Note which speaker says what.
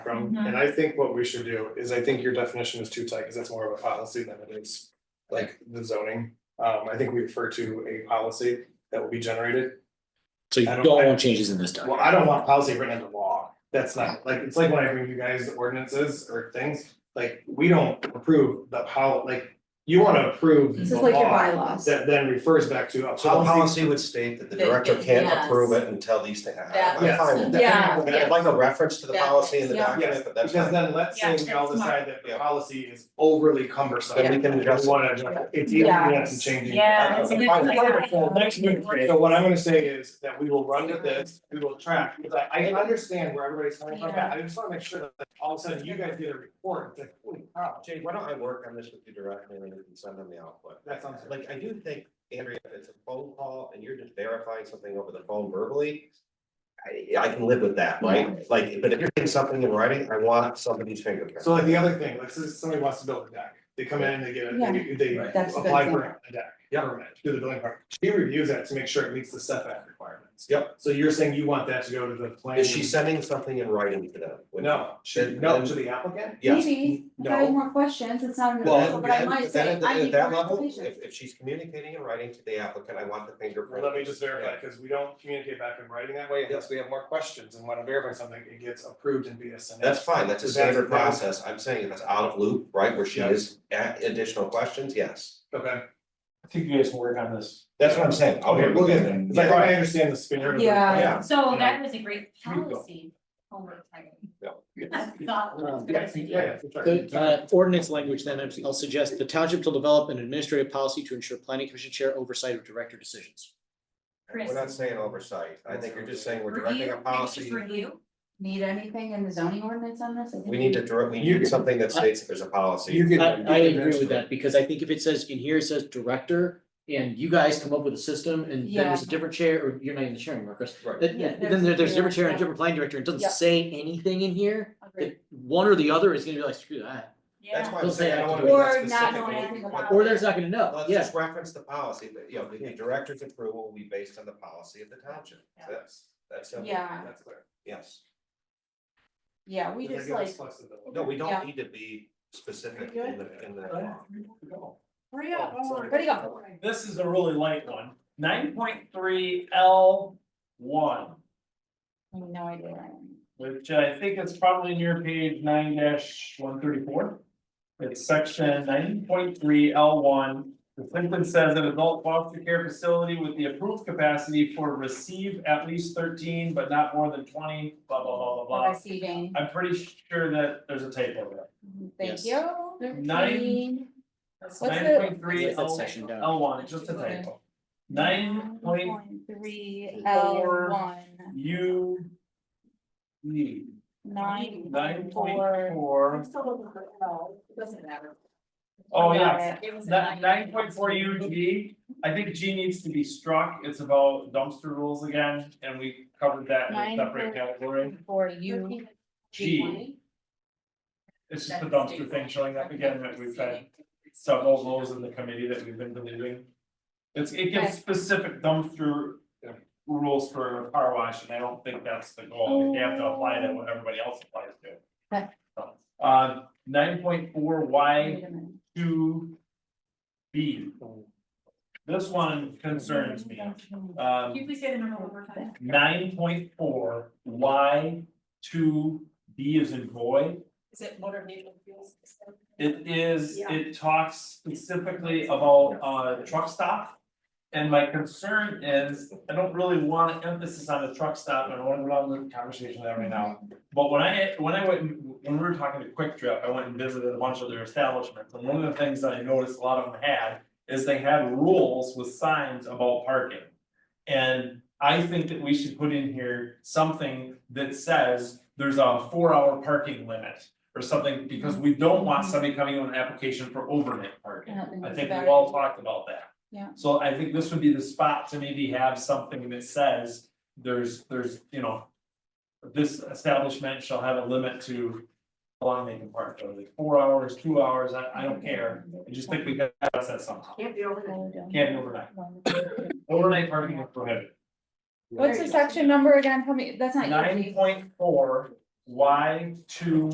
Speaker 1: from,
Speaker 2: Mm-hmm.
Speaker 1: and I think what we should do is, I think your definition is too tight, because that's more of a policy than it is. Like the zoning, um, I think we refer to a policy that will be generated,
Speaker 3: So you
Speaker 1: I don't-
Speaker 3: don't want changes in this
Speaker 1: well,
Speaker 3: document.
Speaker 1: I don't want policy written into law. That's not, like, it's like when I bring you guys ordinances or things, like, we don't approve the how, like, you wanna approve
Speaker 2: This
Speaker 1: the
Speaker 2: is like your
Speaker 1: law
Speaker 2: bylaws.
Speaker 1: that then refers back to a
Speaker 4: So the
Speaker 1: policy.
Speaker 4: policy would state that the
Speaker 5: That-
Speaker 4: director
Speaker 5: that-
Speaker 4: can't
Speaker 5: yes.
Speaker 4: approve it until these things happen. I'm
Speaker 1: Yes.
Speaker 4: fine with that.
Speaker 2: Yeah,
Speaker 4: I'd
Speaker 5: yeah.
Speaker 4: like a reference to the
Speaker 5: That-
Speaker 4: policy in the
Speaker 2: yeah.
Speaker 4: document,
Speaker 1: Yes,
Speaker 4: but that's
Speaker 1: because
Speaker 4: fine.
Speaker 1: then let's say
Speaker 6: Yeah,
Speaker 1: we all
Speaker 6: that's smart.
Speaker 1: decide that the
Speaker 4: Yeah.
Speaker 1: policy is overly cumbersome.
Speaker 4: Then we can adjust it.
Speaker 1: We wanna adjust it. it's easy to have some changing.
Speaker 6: Yeah,
Speaker 4: that's a
Speaker 6: good
Speaker 4: fine-
Speaker 6: idea.
Speaker 1: So next week, so what I'm gonna say is that we will run to this, we will track, because I I understand where everybody's coming from, but I just wanna make sure that all of a sudden you guys get a report, it's like, holy cow.
Speaker 4: Jay, why don't I work on this with you directly and then you can send them the output?
Speaker 1: That sounds like,
Speaker 4: Like, I do think, Andrea, if it's a phone call and you're just verifying something over the phone verbally. I I can live with that, right? Like, but if you're doing something in writing, I want somebody's fingerprint.
Speaker 1: so like the other thing, like so somebody wants to build a deck, they come in, they get it, they they
Speaker 3: Right.
Speaker 2: That's a good
Speaker 1: apply
Speaker 2: thing.
Speaker 1: for a deck, permit, do the building part. She reviews that to make sure it meets the setback requirements.
Speaker 4: Yep.
Speaker 1: So you're saying you want that to go to the plan?
Speaker 4: Is she sending something in writing to them?
Speaker 1: No, she,
Speaker 4: Then-
Speaker 1: no,
Speaker 4: then-
Speaker 1: to the applicant?
Speaker 4: Yes.
Speaker 2: Maybe, if I
Speaker 4: No.
Speaker 2: have more questions, it's not in the
Speaker 4: Well,
Speaker 2: proposal, but I
Speaker 4: then,
Speaker 2: might
Speaker 4: then
Speaker 2: say,
Speaker 4: at the-
Speaker 2: I
Speaker 4: at
Speaker 2: need
Speaker 4: that
Speaker 2: more
Speaker 4: level,
Speaker 2: information.
Speaker 4: if, if she's communicating and writing to the applicant, I want the fingerprint.
Speaker 1: Let me just verify, because we don't communicate back in writing that way unless we have more questions and want to verify something, it gets approved in BSNA.
Speaker 4: That's fine, that's a
Speaker 1: So that's-
Speaker 4: standard
Speaker 1: that's-
Speaker 4: process, I'm saying if it's out of loop, right, where she
Speaker 1: Yeah.
Speaker 4: is, at additional questions, yes.
Speaker 1: Okay,
Speaker 7: I think you guys can work on this.
Speaker 4: That's what I'm saying. I'll
Speaker 1: okay,
Speaker 4: work
Speaker 1: we'll
Speaker 4: with
Speaker 1: get
Speaker 4: it
Speaker 1: there,
Speaker 4: and-
Speaker 1: 'Cause I think I understand the spirit of it.
Speaker 2: Yeah.
Speaker 4: Yeah,
Speaker 6: So that was a great
Speaker 1: Here we go.
Speaker 6: policy homework title.
Speaker 4: Yeah.
Speaker 6: I thought it was a good idea.
Speaker 1: Yeah, yeah,
Speaker 3: The,
Speaker 1: for sure.
Speaker 3: uh, ordinance language, then I'd- I'll suggest the township will develop an administrative policy to ensure planning commission chair oversight of director decisions.
Speaker 4: we're not saying oversight, I think you're just saying we're directing
Speaker 6: Review,
Speaker 4: a
Speaker 6: maybe just
Speaker 4: policy,
Speaker 6: review.
Speaker 2: Need anything in the zoning ordinance on this? I think
Speaker 4: we need to direct, we
Speaker 3: You-
Speaker 4: need something that states that there's a policy.
Speaker 1: You
Speaker 3: I,
Speaker 1: can-
Speaker 3: I agree with that, because I think if it says, in here it says director, and you guys come up with a system, and then there's a different chair, or you're not even sharing, Marcus.
Speaker 4: Right.
Speaker 3: Then,
Speaker 2: Yeah,
Speaker 3: then there- there's a different chair and a
Speaker 2: yeah.
Speaker 3: different planning director, and it
Speaker 2: Yeah.
Speaker 3: doesn't say anything in here,
Speaker 2: Agreed.
Speaker 3: that one or the other is gonna be like, screw that,
Speaker 4: That's
Speaker 6: Yeah.
Speaker 4: why I'm
Speaker 3: Don't say
Speaker 4: saying I
Speaker 3: I
Speaker 4: don't
Speaker 3: have
Speaker 4: wanna
Speaker 3: to
Speaker 4: be
Speaker 3: do
Speaker 4: that
Speaker 2: Or not knowing
Speaker 4: specific.
Speaker 2: anything about.
Speaker 3: or there's not gonna know,
Speaker 4: Let's
Speaker 3: Uh, yeah.
Speaker 4: just reference the policy, but, you know, the the director's approval will be based on the policy of the township, that's, that's simple.
Speaker 2: Yeah,
Speaker 1: That's clear.
Speaker 4: Yes,
Speaker 2: yeah, we
Speaker 1: Does that
Speaker 2: just
Speaker 1: give us
Speaker 2: like,
Speaker 1: flexibility?
Speaker 4: no, we
Speaker 2: Yeah.
Speaker 4: don't need to be specific in the, in the law.
Speaker 6: Hurry up, don't worry.
Speaker 2: where do you go?
Speaker 7: Oh, This is a really light one. Nine point three L one,
Speaker 2: I have No idea. where I am.
Speaker 7: which I think is probably near page nine one thirty-four. It's section nine point three L one. The simply says an adult foster care facility with the approved capacity for receive at least thirteen, but not more than twenty, blah, blah, blah, blah,
Speaker 2: What I
Speaker 7: blah.
Speaker 2: see, Jane.
Speaker 7: I'm pretty sure that there's a typo there.
Speaker 2: Thank
Speaker 3: Yes.
Speaker 2: you.
Speaker 7: Nine-
Speaker 2: the-
Speaker 7: Nine point three
Speaker 3: That's that
Speaker 7: L,
Speaker 3: section down.
Speaker 7: L one, just a typo. Nine point
Speaker 2: Three L
Speaker 7: four-
Speaker 2: one,
Speaker 7: U. E,
Speaker 2: nine.
Speaker 7: nine point
Speaker 2: four-
Speaker 7: four,
Speaker 6: still looking for L, it doesn't matter.
Speaker 7: oh
Speaker 2: Got
Speaker 7: yeah,
Speaker 2: it.
Speaker 6: It was a
Speaker 7: nine point four U G. I think G needs to be struck, it's about dumpster rules again, and we covered that in a
Speaker 2: Nine
Speaker 7: separate
Speaker 2: point-
Speaker 7: category.
Speaker 2: For you.
Speaker 7: G, it's just the dumpster thing showing up again that we've had several of those in the committee that we've been deleting. It's, it
Speaker 2: Okay.
Speaker 7: gives specific dumpster uh, rules for a car wash, and I don't think that's the goal, they have to apply that when everybody else applies to.
Speaker 2: Okay.
Speaker 7: So, Uh, nine point four Y
Speaker 2: Wait a minute.
Speaker 7: two B. This one concerns me,
Speaker 6: Can you
Speaker 7: um,
Speaker 6: please say the number one more time?
Speaker 7: nine point four Y two B is in void.
Speaker 6: Is it motor vehicle fuels?
Speaker 7: It is,
Speaker 6: Yeah.
Speaker 7: it talks specifically about uh truck stop. And my concern is, I don't really want emphasis on the truck stop, and I don't want to go down the conversation there right now. But when I, when I went, when we were talking to Quick Trip, I went and visited a bunch of their establishments, and one of the things that I noticed a lot of them had. Is they had rules with signs about parking. And I think that we should put in here something that says there's a four hour parking limit. Or something, because we don't want somebody coming in with an application for overnight
Speaker 2: I
Speaker 7: parking.
Speaker 2: don't think
Speaker 7: I
Speaker 2: that's
Speaker 7: think
Speaker 2: a bad
Speaker 7: we've all
Speaker 2: idea.
Speaker 7: talked about that.
Speaker 2: Yeah.
Speaker 7: So I think this would be the spot to maybe have something that says, there's, there's, you know. This establishment shall have a limit to how long they can park, whether it's four hours, two hours, I, I don't care, I just think we got to address that somehow.
Speaker 6: Can't be over.
Speaker 7: Can't be overnight, overnight parking is prohibited.
Speaker 2: What's the section number again? Tell me, that's not.
Speaker 7: Nine
Speaker 2: easy.
Speaker 7: point four why two